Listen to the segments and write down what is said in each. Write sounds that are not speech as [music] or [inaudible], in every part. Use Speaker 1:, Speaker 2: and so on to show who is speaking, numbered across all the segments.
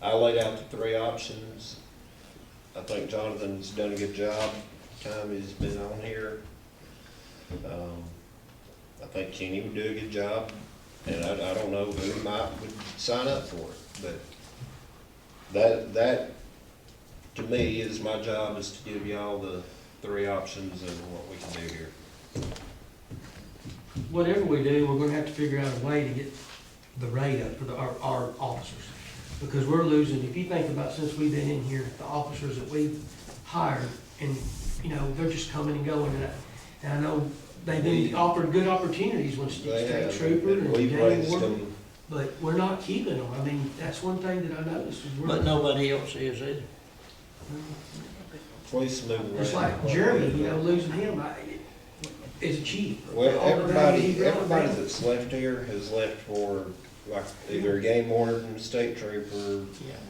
Speaker 1: I laid out the three options. I think Jonathan's done a good job, time he's been on here. Um, I think Kenny would do a good job, and I, I don't know who might would sign up for it, but that, that, to me, is my job, is to give y'all the three options and what we can do here.
Speaker 2: Whatever we do, we're gonna have to figure out a way to get the rate up for the, our, our officers. Because we're losing, if you think about since we've been in here, the officers that we've hired, and, you know, they're just coming and going, and I, and I know they've been offered good opportunities when
Speaker 1: They
Speaker 2: state
Speaker 1: have,
Speaker 2: trooper and
Speaker 1: We've
Speaker 2: gang
Speaker 1: raised
Speaker 2: warden,
Speaker 1: them,
Speaker 2: but we're not keeping them, I mean, that's one thing that I noticed, is we're.
Speaker 3: But nobody else is either.
Speaker 1: police move
Speaker 2: It's
Speaker 1: around.
Speaker 2: like Jeremy, you know, losing him, I, it's a chief.
Speaker 1: Well,
Speaker 2: All the value he
Speaker 1: everybody,
Speaker 2: brought
Speaker 1: everybody
Speaker 2: down.
Speaker 1: that's left here has left for, like, either game warden, state trooper,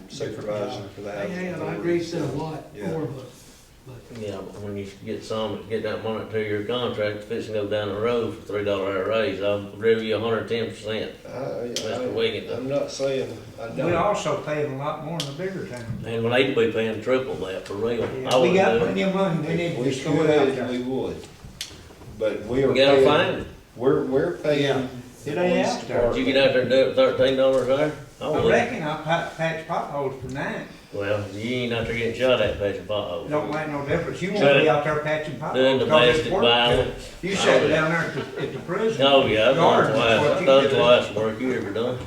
Speaker 1: supervisor for the
Speaker 2: They
Speaker 1: housing.
Speaker 2: have, I
Speaker 1: authority,
Speaker 2: agree, it's a
Speaker 1: so,
Speaker 2: lot
Speaker 1: Yeah.
Speaker 2: more, but, but
Speaker 3: Yeah, but when you get some, get that one or two year contract, fixing go down the road for three dollar hour raise, I'll give you hundred and ten percent.
Speaker 1: I, I,
Speaker 3: Mr. Wiggins.
Speaker 1: I'm not saying, I
Speaker 4: We
Speaker 1: don't,
Speaker 4: also pay them a lot more in the bigger towns.
Speaker 3: And we need to be paying triple that for real. I
Speaker 4: We
Speaker 3: wouldn't
Speaker 4: got
Speaker 3: do
Speaker 4: plenty
Speaker 3: it.
Speaker 4: of money, we
Speaker 1: if
Speaker 4: need
Speaker 1: we
Speaker 4: to just go out
Speaker 1: could, we
Speaker 4: there.
Speaker 1: would, but we are
Speaker 3: We gotta
Speaker 1: paying,
Speaker 3: find it.
Speaker 1: we're, we're
Speaker 4: Yeah.
Speaker 1: paying.
Speaker 4: It ain't out there.
Speaker 3: Did you get out there and do it thirteen dollars an hour? I
Speaker 4: I
Speaker 3: wouldn't.
Speaker 4: reckon I pa- patch potholes for nine,
Speaker 3: Well, you ain't out there getting shot at patching potholes.
Speaker 4: don't make no difference, you won't be out there patching
Speaker 3: Doing
Speaker 4: potholes. 'cause it's
Speaker 3: domestic
Speaker 4: work.
Speaker 3: violence.
Speaker 4: You sat down there at the, at the prison.
Speaker 3: Oh, yeah, I've
Speaker 4: Yards
Speaker 3: done
Speaker 4: is
Speaker 3: twice,
Speaker 4: what
Speaker 3: I've
Speaker 4: you
Speaker 3: done
Speaker 4: do.
Speaker 3: twice work you ever done.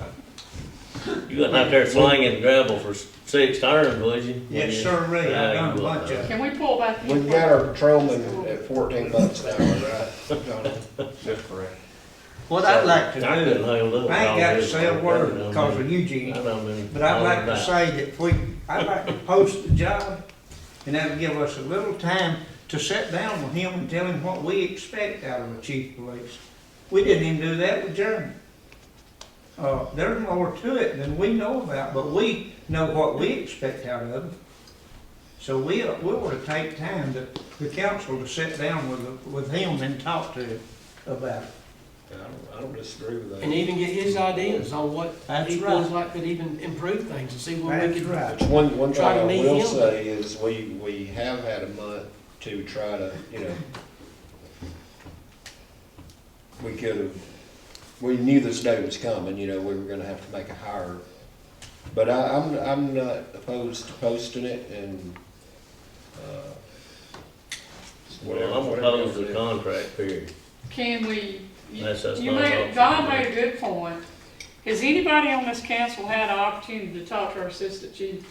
Speaker 3: You wasn't out
Speaker 4: [laughs]
Speaker 3: there slinging gravel for six turns, was you?
Speaker 4: Yes, sir, Ray,
Speaker 3: Yeah, Uh,
Speaker 4: I
Speaker 3: you
Speaker 4: done a bunch
Speaker 3: wasn't.
Speaker 4: of,
Speaker 5: Can we pull back? in?
Speaker 1: We've got our patrolman at fourteen bucks an hour, right,
Speaker 3: [laughs]
Speaker 1: Jonathan? That's correct.
Speaker 4: what I'd like to
Speaker 3: I couldn't
Speaker 4: do,
Speaker 3: hold up.
Speaker 4: I ain't got to say a word
Speaker 3: I
Speaker 4: because of
Speaker 3: mean,
Speaker 4: Eugene,
Speaker 3: I don't mean-
Speaker 4: But I'd like
Speaker 3: All
Speaker 4: to
Speaker 3: right.
Speaker 4: say that if we, I'd like to post the job, and that'll give us a little time to sit down with him and tell him what we expect out of a chief of police. We didn't even do that with Jeremy. Uh, there's more to it than we know about, but we know what we expect out of him. So we, we ought to take time to, the council to sit down with, with him and talk to him about it.
Speaker 1: I don't, I don't disagree with that.
Speaker 2: and even get his ideas on what
Speaker 4: That's
Speaker 2: he
Speaker 4: right.
Speaker 2: feels like could even improve things and see what we
Speaker 4: That's
Speaker 2: could.
Speaker 4: right.
Speaker 1: It's one, one thing
Speaker 2: Try to
Speaker 1: I
Speaker 2: meet
Speaker 1: will
Speaker 2: him.
Speaker 1: say is we, we have had a month to try to, you know, we could have, we knew this day was coming, you know, we were gonna have to make a hire. But I, I'm, I'm not opposed to posting it and, uh, whatever-
Speaker 3: Well, I'm
Speaker 1: whatever
Speaker 3: opposed to
Speaker 1: y'all
Speaker 3: the
Speaker 1: do.
Speaker 3: contract period.
Speaker 5: Can we? you-
Speaker 3: That's- that's
Speaker 5: You
Speaker 3: my
Speaker 5: made,
Speaker 3: option.
Speaker 5: Don made a good point. Has anybody on this council had an opportunity to talk to our assistant chief?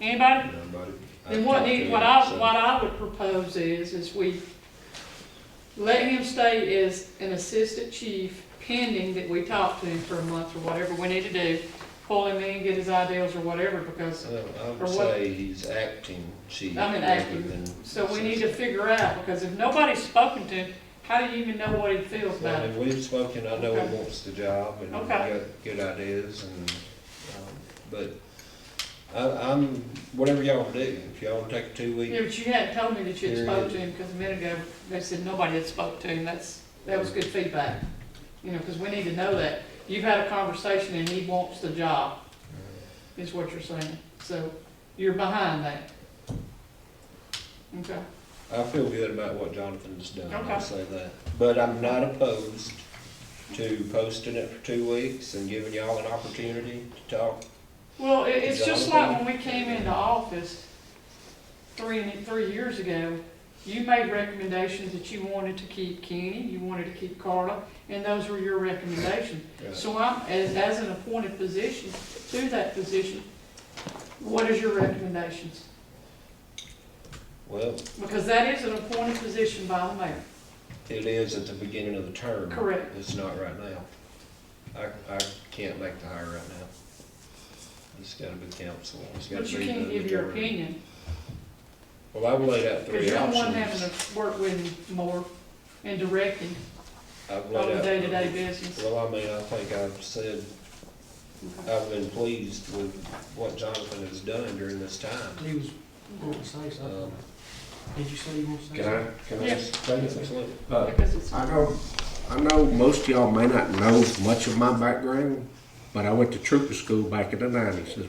Speaker 5: Anybody?
Speaker 1: Nobody- I
Speaker 5: Then what,
Speaker 1: talked to
Speaker 5: he- what
Speaker 1: him,
Speaker 5: I,
Speaker 1: so-
Speaker 5: what I would propose is, is we let him stay as an assistant chief pending that we talk to him for a month or whatever we need to do. Pull him in, get his ideas or whatever, because,
Speaker 1: So I
Speaker 5: Or
Speaker 1: would
Speaker 5: what-
Speaker 1: say he's acting chief.
Speaker 5: I mean,
Speaker 1: rather
Speaker 5: acting.
Speaker 1: than-
Speaker 5: so we need to figure out, because if nobody's spoken to him, how do you even know what he feels
Speaker 1: Well,
Speaker 5: about
Speaker 1: I
Speaker 5: it?
Speaker 1: mean, we've spoken, I know
Speaker 5: Okay.
Speaker 1: he wants the job and we've got
Speaker 5: Okay.
Speaker 1: good ideas and, um, but I, I'm, whatever y'all do, if y'all wanna take a two
Speaker 5: Yeah,
Speaker 1: week,
Speaker 5: but you hadn't told me that you had spoke to
Speaker 1: Period.
Speaker 5: him, because a minute ago, they said nobody had spoke to him, that's, that was good feedback. You know, because we need to know that. You've had a conversation and he wants the job, is what you're saying, so you're behind that. Okay,
Speaker 1: I feel good about what Jonathan's done, I'll
Speaker 5: Okay.
Speaker 1: say that. But I'm not opposed to posting it for two weeks and giving y'all an opportunity to talk.
Speaker 5: well, it, it's just
Speaker 1: Jonathan?
Speaker 5: like when we came into office three, three years ago, you made recommendations that you wanted to keep Kenny, you wanted to keep Carla, and those were your recommendations. So I'm, as, as an appointed position, to that position, what is your recommendations?
Speaker 1: Well,
Speaker 5: Because that is an appointed position by the mayor.
Speaker 1: it is at the beginning of the term.
Speaker 5: Correct.
Speaker 1: It's not right now. I, I can't make the hire right now. It's gotta be council, it's gotta
Speaker 5: But
Speaker 1: be
Speaker 5: you
Speaker 1: the
Speaker 5: can't give your
Speaker 1: majority.
Speaker 5: opinion,
Speaker 1: Well, I've laid out
Speaker 5: because
Speaker 1: three
Speaker 5: you're the one having
Speaker 1: options.
Speaker 5: to work with him more and directing
Speaker 1: I've
Speaker 5: on
Speaker 1: laid
Speaker 5: the
Speaker 1: out-
Speaker 5: day-to-day business.
Speaker 1: Well, I mean, I think I've said, I've been pleased with what Jonathan has done during this time.
Speaker 2: He was going to say
Speaker 1: Um,
Speaker 2: something. Did you say you want to say
Speaker 6: Can I,
Speaker 2: something?
Speaker 6: can I
Speaker 5: Yeah.
Speaker 6: just say this?
Speaker 1: Absolutely.
Speaker 6: Uh,
Speaker 5: Because it's,
Speaker 6: I know, I know most of y'all may not know much of my background, but I went to trooper school back in the nineties, is